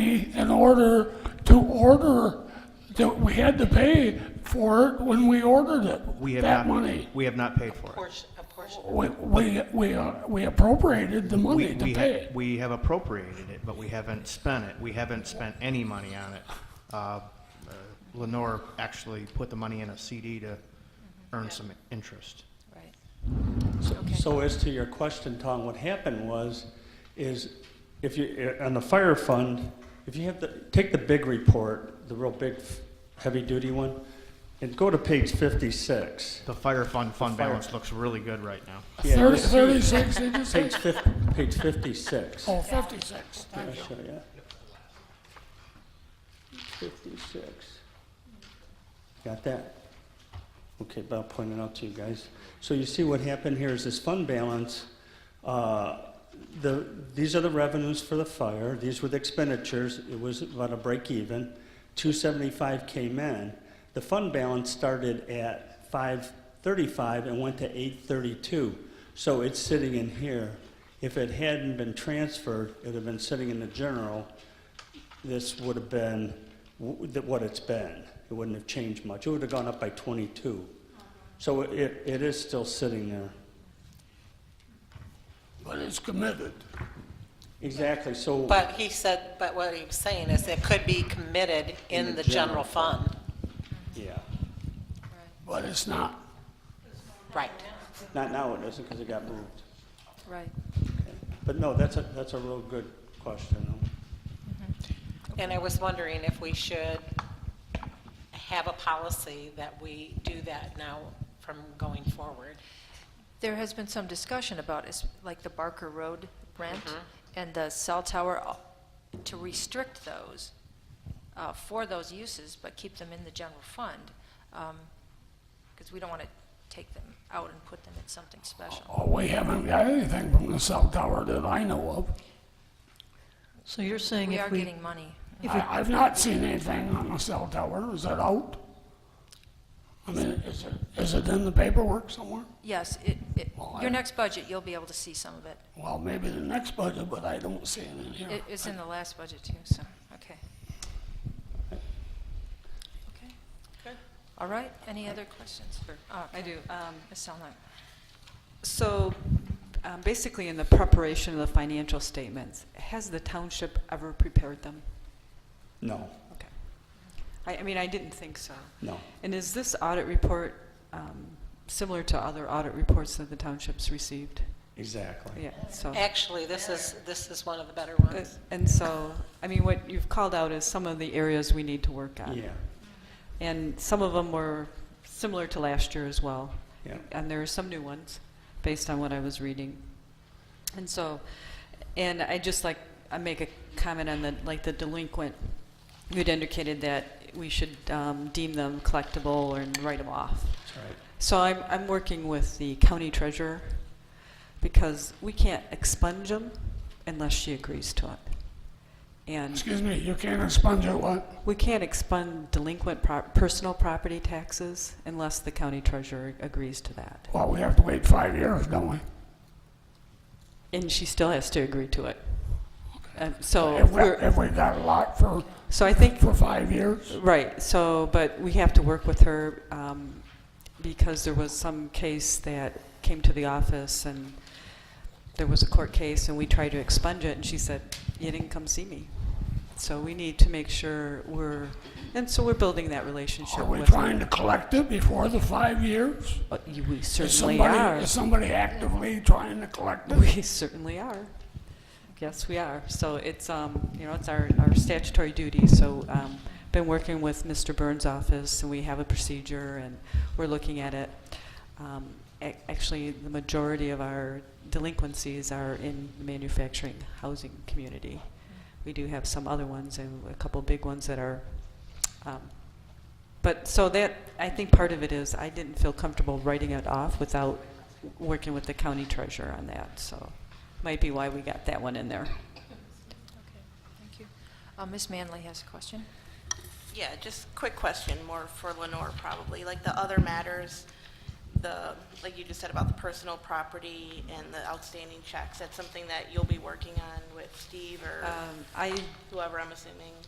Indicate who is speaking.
Speaker 1: money in order to order, that we had to pay for it when we ordered it.
Speaker 2: We have
Speaker 1: That
Speaker 2: not-
Speaker 1: money.
Speaker 2: We have not paid for it.
Speaker 3: Portion, a portion.
Speaker 1: We, we, we, uh, we appropriated the money
Speaker 2: We,
Speaker 1: to
Speaker 2: we,
Speaker 1: pay.
Speaker 2: ha- we have appropriated it, but we haven't spent it. We haven't spent any money on it. Uh, uh, Lenore actually put the money in a CD to earn some interest.
Speaker 3: Right.
Speaker 4: So as to your question, Tom, what happened was, is if you, eh, on the fire fund, if you have the, take the big report, the real big, heavy-duty one, and go to page 56.
Speaker 2: The fire fund, fund
Speaker 4: fire-
Speaker 2: balance looks really good right now.
Speaker 4: Yeah,
Speaker 1: Thirty,
Speaker 4: this-
Speaker 1: thirty-six, did you say?
Speaker 4: Page fif, page 56.
Speaker 1: Oh, fifty-six, thank you.
Speaker 4: I'll show you. 56. Got that? Okay, but I'll point it out to you guys. So you see what happened here is this fund balance, uh, the, these are the revenues for the fire, these were the expenditures, it was about a break even. 275 came in. The fund balance started at 535 and went to 832. So it's sitting in here. If it hadn't been transferred, it would have been sitting in the general. This would have been w- th- what it's been. It wouldn't have changed much. It would have gone up by 22. So it, it is still sitting there.
Speaker 1: But it's committed.
Speaker 4: Exactly, so.
Speaker 3: But he said, but what he was saying is it could be committed in the general fund.
Speaker 4: Yeah.
Speaker 1: But it's not.
Speaker 3: Right.
Speaker 4: Not now it isn't because it got moved.
Speaker 5: Right.
Speaker 4: But no, that's a, that's a real good question.
Speaker 3: And I was wondering if we should have a policy that we do that now from going forward.
Speaker 5: There has been some discussion about, is like the Barker Road rent and the cell tower, uh, to restrict those uh, for those uses, but keep them in the general fund, because we don't want to take them out and put them in something special.
Speaker 1: Oh, we haven't got anything from the cell tower that I know of.
Speaker 6: So you're saying
Speaker 5: We are
Speaker 6: if we,
Speaker 5: getting money.
Speaker 1: I, I've not seen anything on the cell tower. Is it out? I mean, is it, is it in the paperwork somewhere?
Speaker 5: Yes, it, it-
Speaker 1: Well, I-
Speaker 5: your next budget, you'll be able to see some of it.
Speaker 1: Well, maybe the next budget, but I don't see it in here.
Speaker 5: It- It's in the last budget too, so, okay. Okay.
Speaker 3: Good.
Speaker 5: All right, any other questions? Oh,
Speaker 7: I do. Um,
Speaker 5: Ms. Selnok?
Speaker 7: So um, basically, in the preparation of the financial statements, has the township ever prepared them?
Speaker 4: No,
Speaker 7: Okay. I, I mean, I didn't think so.
Speaker 4: no.
Speaker 7: And is this audit report um, similar to other audit reports that the townships received?
Speaker 4: Exactly.
Speaker 7: Yeah, so.
Speaker 3: Actually, this is, this is one of the better
Speaker 7: Uh,
Speaker 3: ones.
Speaker 7: And so, I mean, what you've called out is some of the areas we need to work on.
Speaker 4: Yeah,
Speaker 7: And some of them were similar to last year as well.
Speaker 4: yeah.
Speaker 7: and there are some new ones based on what I was reading. And so, and I just like, I make a comment on the, like the delinquent, you'd indicated that we should um, deem them collectible and write them off.
Speaker 4: That's right.
Speaker 7: So I'm, I'm working with the county treasurer because we can't expunge them unless she agrees to it. And
Speaker 1: Excuse me, you can't expunge it, what?
Speaker 7: we can't expend delinquent pro- personal property taxes unless the county treasurer agrees to that.
Speaker 1: Well, we have to wait five years, don't we?
Speaker 7: And she still has to agree to it. Um, so,
Speaker 1: If we,
Speaker 7: we're,
Speaker 1: if we got a lot for,
Speaker 7: so I think,
Speaker 1: for five years?
Speaker 7: right, so, but we have to work with her um, because there was some case that came to the office and there was a court case and we tried to expunge it and she said, you didn't come see me. So we need to make sure we're, and so we're building that
Speaker 1: Are
Speaker 7: relationship
Speaker 1: we
Speaker 7: with her.
Speaker 1: trying to collect it before the five years?
Speaker 7: Uh, you- We
Speaker 1: Is
Speaker 7: certainly
Speaker 1: somebody,
Speaker 7: are.
Speaker 1: is somebody actively trying to collect it?
Speaker 7: We certainly are. Yes, we are. So it's, um, you know, it's our, our statutory duty. So, um, been working with Mr. Burns' office and we have a procedure and we're looking at it. Um, ac- actually, the majority of our delinquencies are in the manufacturing housing community. We do have some other ones and a couple big ones that are, um, but so that, I think part of it is I didn't feel comfortable writing it off without working with the county treasurer on that, so might be why we got that one in there.
Speaker 5: Okay, thank you. Uh, Ms. Manley has a question.
Speaker 8: Yeah, just quick question, more for Lenore probably, like the other matters, the, like you just said about the personal property and the outstanding checks, that's something that you'll be working on with Steve or
Speaker 7: Um, I
Speaker 8: whoever, I'm assuming?